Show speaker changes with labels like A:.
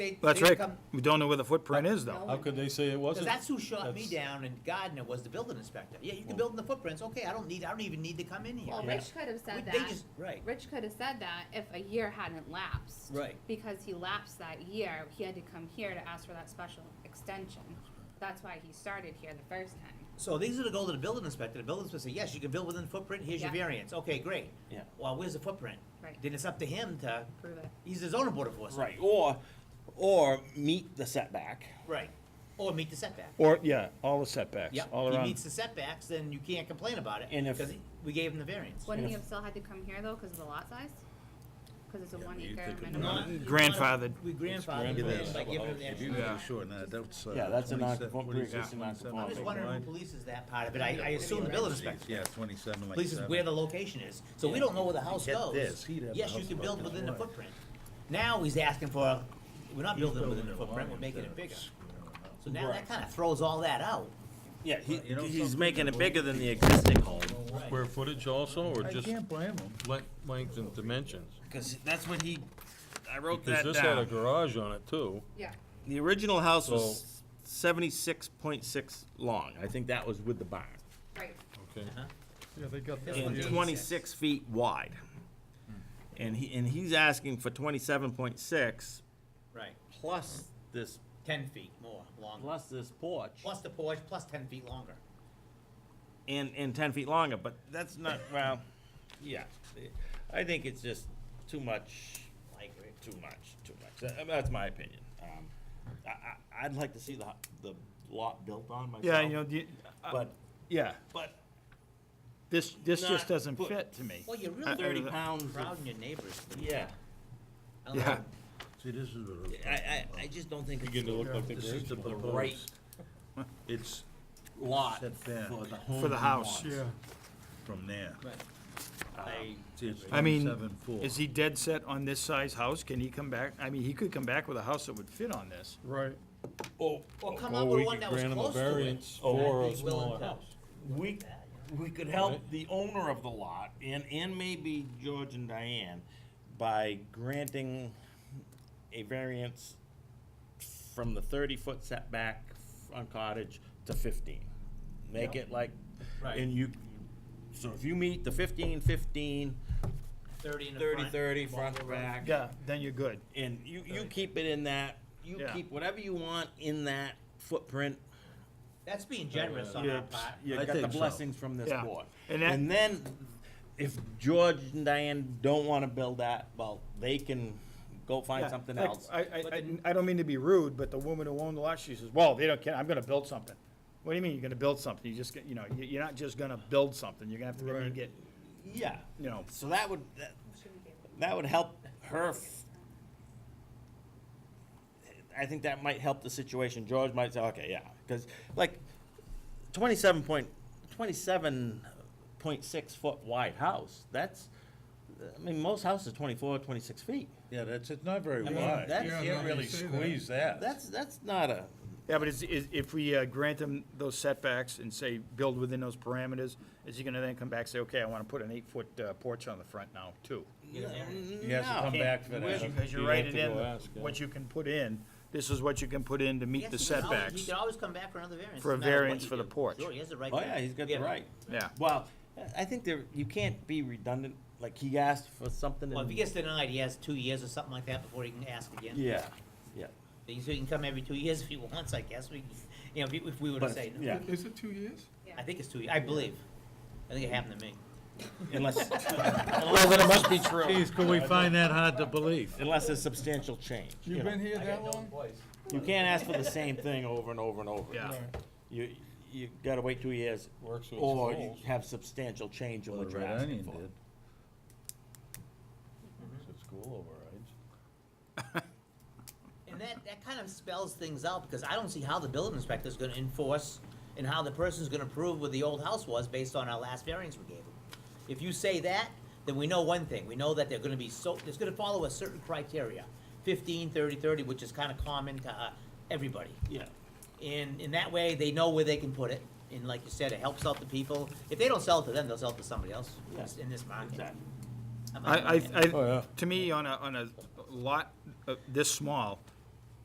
A: They-
B: That's
A: they
B: right.
A: come-
B: We don't know where the footprint is
A: No.
B: though.
C: How could they say it
A: Cause
C: wasn't?
A: that's who shot me
C: That's-
A: down and Gardner was the building inspector. Yeah, you can build in the footprints, okay, I don't need, I don't even need to come in here.
D: Well,
C: Yeah.
D: Rich could have
A: We-
D: said
A: They
D: that,
A: just, right,
D: Rich could have said that if a year hadn't lapsed.
A: Right.
D: Because he lapsed that year, he had to come here to ask for that special extension. That's why he started here the first time.
A: so these are to go to the building inspector, the building inspector says, yes, you can build within the footprint, here's your
D: Yeah.
A: variance, okay, great.
E: Yeah.
A: Well, where's the footprint?
D: Right.
A: Then it's up to him to,
D: Prove it.
A: he's the zoning board of us.
E: Right, or, or meet the setback.
A: Right, or meet the setback.
B: Or, yeah, all the setbacks,
A: Yep,
B: all
A: he
B: around.
A: meets the setbacks, then you can't complain about it,
E: And if-
A: because we gave him the variance.
D: Wouldn't he
E: if-
D: have still had to come here though, because of the lot size? Because it's a one acre
A: Not-
D: minimum?
A: we
B: Grandfathered.
A: wanna- We grandfathered
C: grandfathered.
A: him in by giving him the
F: If
A: extra
F: you
A: variance.
F: go short, nah, that's. uh,
E: Yeah, that's a
F: 27,
E: non-conform-
F: 27,
E: pre-existing
F: 27.
A: I'm
E: non-conforming.
A: just wondering who polices that part of it. I, I assume the building inspector
F: Yeah, twenty-seven like
A: polices
F: seven.
A: where the location is. So we don't know where the house
F: Get
A: goes.
F: this, he'd have the
A: Yes, you
F: house
A: can build
F: built
A: within the
F: in the
A: footprint. Now he's asking for, we're not
F: He's
A: building within the
F: building a
A: footprint, we're
F: line
A: making it
F: that's
A: bigger.
F: screwing up.
A: So now that
E: Right.
A: kinda throws all that out.
E: Yeah, he,
F: You know
E: he's
F: something?
E: making it bigger than the existing home,
G: Square footage also, or
F: I
G: just
F: can't blame him.
G: le- length and dimensions?
E: because that's what he, I wrote
G: Because
E: that
G: this had a
E: down.
G: garage on it too.
D: Yeah.
E: The original house was seventy-six point six long, I think that was with the barn,
D: Right.
G: Okay.
F: Yeah, they got that.
E: and twenty-six feet wide. And he, and he's asking for twenty-seven point six
A: Right.
E: plus this,
A: Ten feet more longer.
E: plus this porch,
A: Plus the porch, plus ten feet longer.
E: and, and ten feet longer, but that's not, well, yeah. I think it's just too much
A: I agree.
E: too much, too much. That- I mean, That's my opinion. Um, I, I, I'd like to see the, the lot built on myself.
B: Yeah, you know, the- uh,
E: But,
B: yeah,
E: but
B: this, this
E: Not
B: just doesn't
E: put-
B: fit to me.
A: Well, you're
B: I- uh, I-
A: really
E: thirty pounds, of-
A: proud in your neighbors.
E: yeah.
A: I don't
B: Yeah.
A: know.
F: See, this is what.
E: I, I, I just don't think it's the
G: look like
F: This is the
E: right
F: proposed. It's
E: lot for
F: Setback.
E: the home.
B: For the
E: he
B: house.
E: wants.
F: from there.
A: I-
F: See, it's
B: I mean,
F: twenty-seven four.
B: is he dead set on this size house? Can he come back? I mean, he could come back with a house that would fit on this.
G: Right.
E: Or,
A: Or come
G: Or
A: up with
G: we
A: one
G: could
A: that was
G: grant him a
A: close to it.
G: variance for
A: I'd
G: a
A: be willing
G: smaller
A: to-
G: house.
E: we, we could help the owner of the lot and, and maybe George and Diane by granting a variance from the thirty-foot setback on cottage to fifteen. Make it like,
A: Right.
E: and you, so if you meet the fifteen, fifteen,
A: Thirty in the
E: thirty,
A: front,
E: thirty,
A: longer
E: front, to
A: road.
E: back,
B: Yeah, then you're good.
E: and you, you keep it in that, you
B: Yeah.
E: keep whatever you want in that footprint,
A: That's being generous on our part.
E: you
F: I
E: got the
F: think so.
E: blessings from this
B: Yeah.
E: board.
B: And that-
E: And then, if George and Diane don't wanna build that, well, they can go find
B: Yeah,
E: something
B: like,
E: else.
B: I, I, I- I don't mean to be rude, but the woman who owned the lot, she says, well, they don't care, I'm gonna build something. What do you mean, you're gonna build something? You just, get- you know, you- you're not just gonna build something, you're gonna have to go in and get,
E: Yeah,
B: you know,
E: so that would, that, that would help her. f- I think that might help the situation. George might say, okay, yeah, cause like, twenty-seven point, twenty-seven point six foot wide house, that's, I mean, most houses are 24, 26 feet.
F: Yeah, that's, it's not very
E: I mean,
F: wide.
E: that's-
F: You
E: Yeah,
F: can't
E: no,
F: really
E: you
F: squeeze that.
E: That's, that's not a,
B: Yeah, but is, is, if we uh, grant him those setbacks and say, build within those parameters, is he gonna then come back and say, okay, I wanna put an eight-foot uh, porch on the front now, too?
F: He has to
E: No.
F: come back for that.
B: Because you
G: You'd
B: write
G: have
B: it
G: to
B: in,
G: go ask, yeah.
B: what you can put in, this is what you can put in to meet
A: Yes,
B: the
A: he can always-
B: setbacks.
A: He can always come back for another variance.
B: For a
A: no matter what
B: variance
A: you
B: for the
A: do.
B: porch.
A: Sure, he has the right.
E: oh
A: to-
E: yeah, he's got the right.
B: Yeah,
E: Well, I think there, you can't be redundant, like he asked for something.
A: Well, if he
E: and-
A: gets denied, he has two years or something like that before he can ask again.
E: Yeah, yeah.
A: So he can come every two years if he wants, I guess. We, you know, if we- if we were to
E: But,
A: say
E: if-
A: no.
E: yeah,
H: Is it two years?
A: I think it's two, years. I believe. I think it happened to me.
E: unless,
B: well, then it must be true.
F: Geez, could we find that hard to believe?
E: unless there's substantial change, you
H: You've
E: know.
H: been here that long?
E: You can't ask for the same thing over and over and over.
B: Yeah.
E: again. You, you gotta wait two years,
G: Works with
E: or you
G: holes.
E: have substantial change in
F: Well,
E: what
F: the
E: you're
F: red
E: asking
F: onion
E: for.
F: did.
G: It's cool overrides.
A: And that, that kind of spells things out because I don't see how the building inspector's gonna enforce and how the person's gonna prove where the old house was based on our last variance we gave them. If you say that, then we know one thing, we know that they're gonna be so, it's gonna follow a certain criteria, 15, 30, 30, which is kinda common to, uh, everybody.
E: Yeah.
A: And, in that way, they know where they can put it, and like you said, it helps out the people. If they don't sell it to them, they'll sell it to somebody else in this- in this market.
E: Exactly.
A: I'm-
B: I, I,
A: I'm-
B: I,
G: Oh, yeah.
B: to me, on a, on a lot uh, this small,